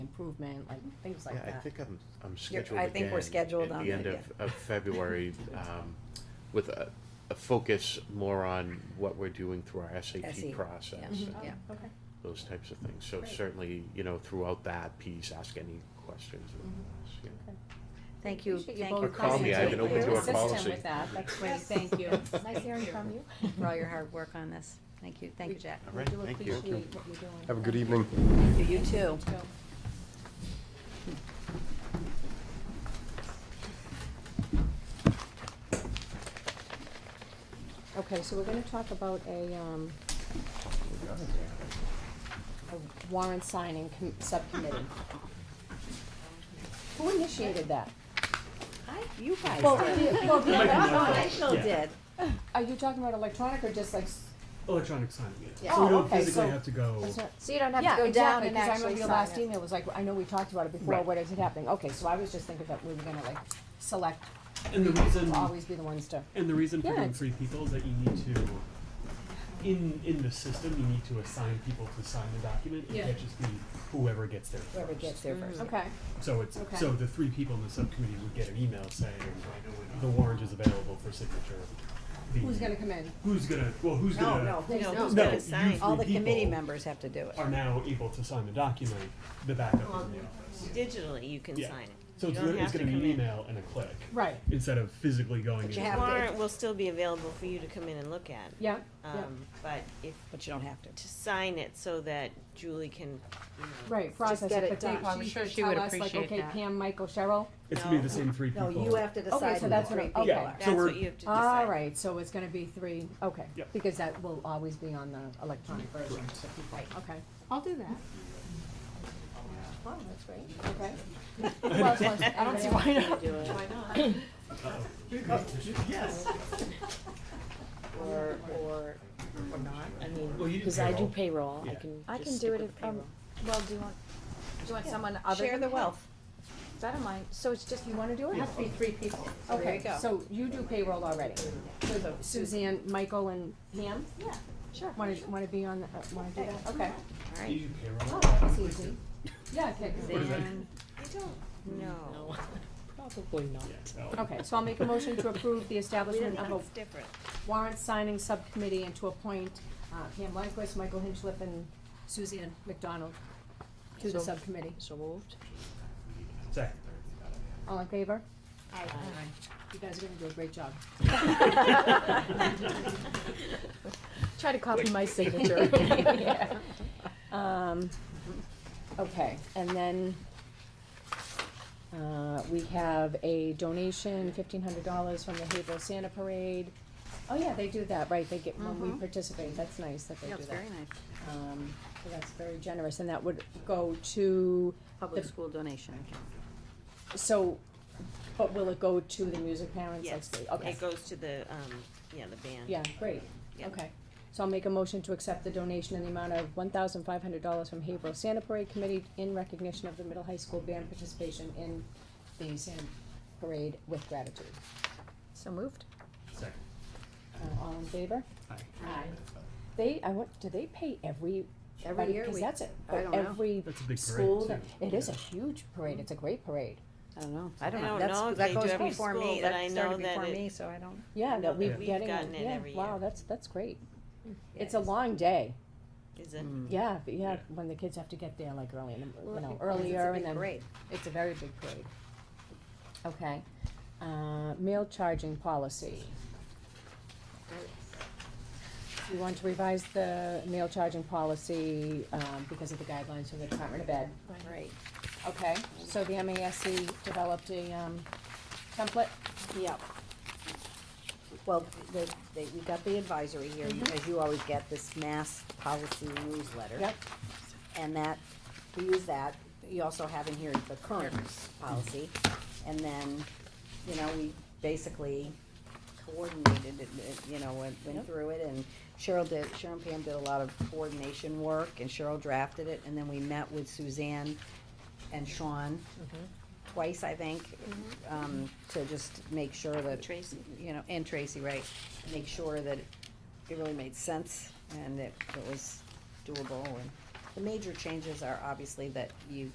improvement, like, things like Yeah, I that. think I'm, I'm You're- scheduled I think we're again scheduled on that, At the end of, yeah. of February, um, with a, a focus more on what we're doing through our SE, SAT process. Mhm. and Yeah. Oh, Okay. Those types of things, so Great. certainly, you know, throughout that piece, ask any questions. Mm-hmm. with Mhm. us, yeah. Thank you, Appreciate thank you you. both Or call coming me, I've been Thank open you. to our Assist him policy. with that, that's great, Yes. thank you. It's nice hearing from you. For all your hard work on this. Thank you, thank you, Jack. All right, We do thank you. appreciate what you're doing. Have a good evening. Thank you, you too. So- Okay, so we're gonna talk about a, um, a warrant signing com- subcommittee. Who initiated that? Hi, you guys. Well, the- well, the other I side- still Yeah. did. Are you talking about electronic or just like? s- Electronic signing, yeah. Yeah. So we Oh, don't okay, physically so- have to go. it's not- So you don't have Yeah, to go down exactly, and because I actually remember your sign last it. email was like, I know we talked about it before, Right. what is it happening? Okay, so I was just thinking that we were gonna like select, And the reason, to always be the ones to, and the reason for Yeah, doing it's- three people is that you need to, in, in the system, you need to assign people to sign the document. It Yeah. can't just be whoever gets there first. whoever gets there first. Okay. So it's, Okay. so the three people in the subcommittee would get an email saying, the warrant is available for signature. The- Who's gonna come in? Who's gonna, well, who's gonna? who's No, not? who's No, gonna you sign? three All the committee people members have to do it. Are now able to sign the document, the backup is Um, in the office. Digitally, you can Yeah. sign it. So You it's, don't lit- it's have to gonna be come an in. email and a click. Right, Instead of physically going But in. you and- have to- Warrant will still be available for you to come in and look at, yeah, yeah, um, but if, But you don't have to. to sign it so that Julie can, you know. right, process get it, it but they done. probably I'm should tell us like, okay, Pam, Michael, Cheryl, It's gonna be the same three people. to okay, so that's what, I- okay. Yeah. That's So we're- what you have to decide. All right, so it's gonna be three, okay, Yep. because that will always be on the electronic version, so people, okay. I'll do that. Oh, that's great. Okay. Who else wants- I don't see why not. Why not? Or, or, or not, I mean, Well, you do cause I do payroll. payroll, I Yeah. can I just can stick do it with if, the um, payroll. well, do you want, do you want someone other Share than the Pam? wealth. I don't mind, so it's just, you wanna do It it? has to be three people. So there you Okay, go. so you do payroll already. So Suzanne, Michael and Pam? Yeah, sure. Wanna, wanna be on, the uh, wanna do that? Okay. You do payroll. Oh, That's easy. Yeah, okay. Oh, What is that? I don't know. Probably not. Yeah, no. Okay, so I'll make a motion to approve the establishment of It's a different. warrant signing subcommittee and to appoint uh, Pam Lindquist, Michael Hinchliffe, and Suzanne McDonald to the So- subcommittee. So moved? Second. All in favor? Aye. You guys are gonna do a great job. Try to copy my signature. Yeah. Um, okay, and then, uh, we have a donation, fifteen hundred dollars from the Haverhill Santa Parade. Oh, yeah, they do that, right, they get, when we participate, that's nice that they do that. That's very nice. Um, so that's very generous, and that would go to, Public The- school donation. so, but will it go to the music parents? like Yes, the- Okay, it goes to the, um, yeah, the band. yeah, great, Yeah. okay. So I'll make a motion to accept the donation in the amount of one thousand five hundred dollars from Haverhill Santa Parade Committee in recognition of the middle high school band participation in the Santa Parade with gratitude. So moved? Second. Uh, all in favor? Aye. Aye. They, I want, do they pay every, every, year cause we- that's it, I don't know. every That's a big parade, school, too. that- it is a Yeah. huge parade, it's a great parade. I don't know, I don't I know, don't know that's, that if they do goes every before school, me, but that I started know that before it- me, so I don't. Yeah, that we're We've getting, gotten it yeah, every wow, year. that's, that's great. Yeah, It's a long day, Is it? yeah, but yeah, Mm. Yeah. when the kids have to get there like early, in the- you Well, know, because earlier and it's a big then. parade. It's a very big parade. Okay, uh, meal charging policy. We want to revise the meal charging policy, um, because of the guidelines from the Department of Ed. Right. Okay, so the MASC developed a, um, template? Yep. Well, they, they, we got the advisory here, because you always get this mass policy newsletter. Yep. And that, we use that, you also have in here the current policy, and then, you know, we basically coordinated it, it, you know, went, went through it, and Cheryl did, Cheryl and Pam did a lot of coordination work, and Cheryl drafted it, and then we met with Suzanne and Sean twice, I think, um, to just make sure that. Tracy. You know, and Tracy, right, make sure that it really made sense and that it was doable. And the major changes are obviously that you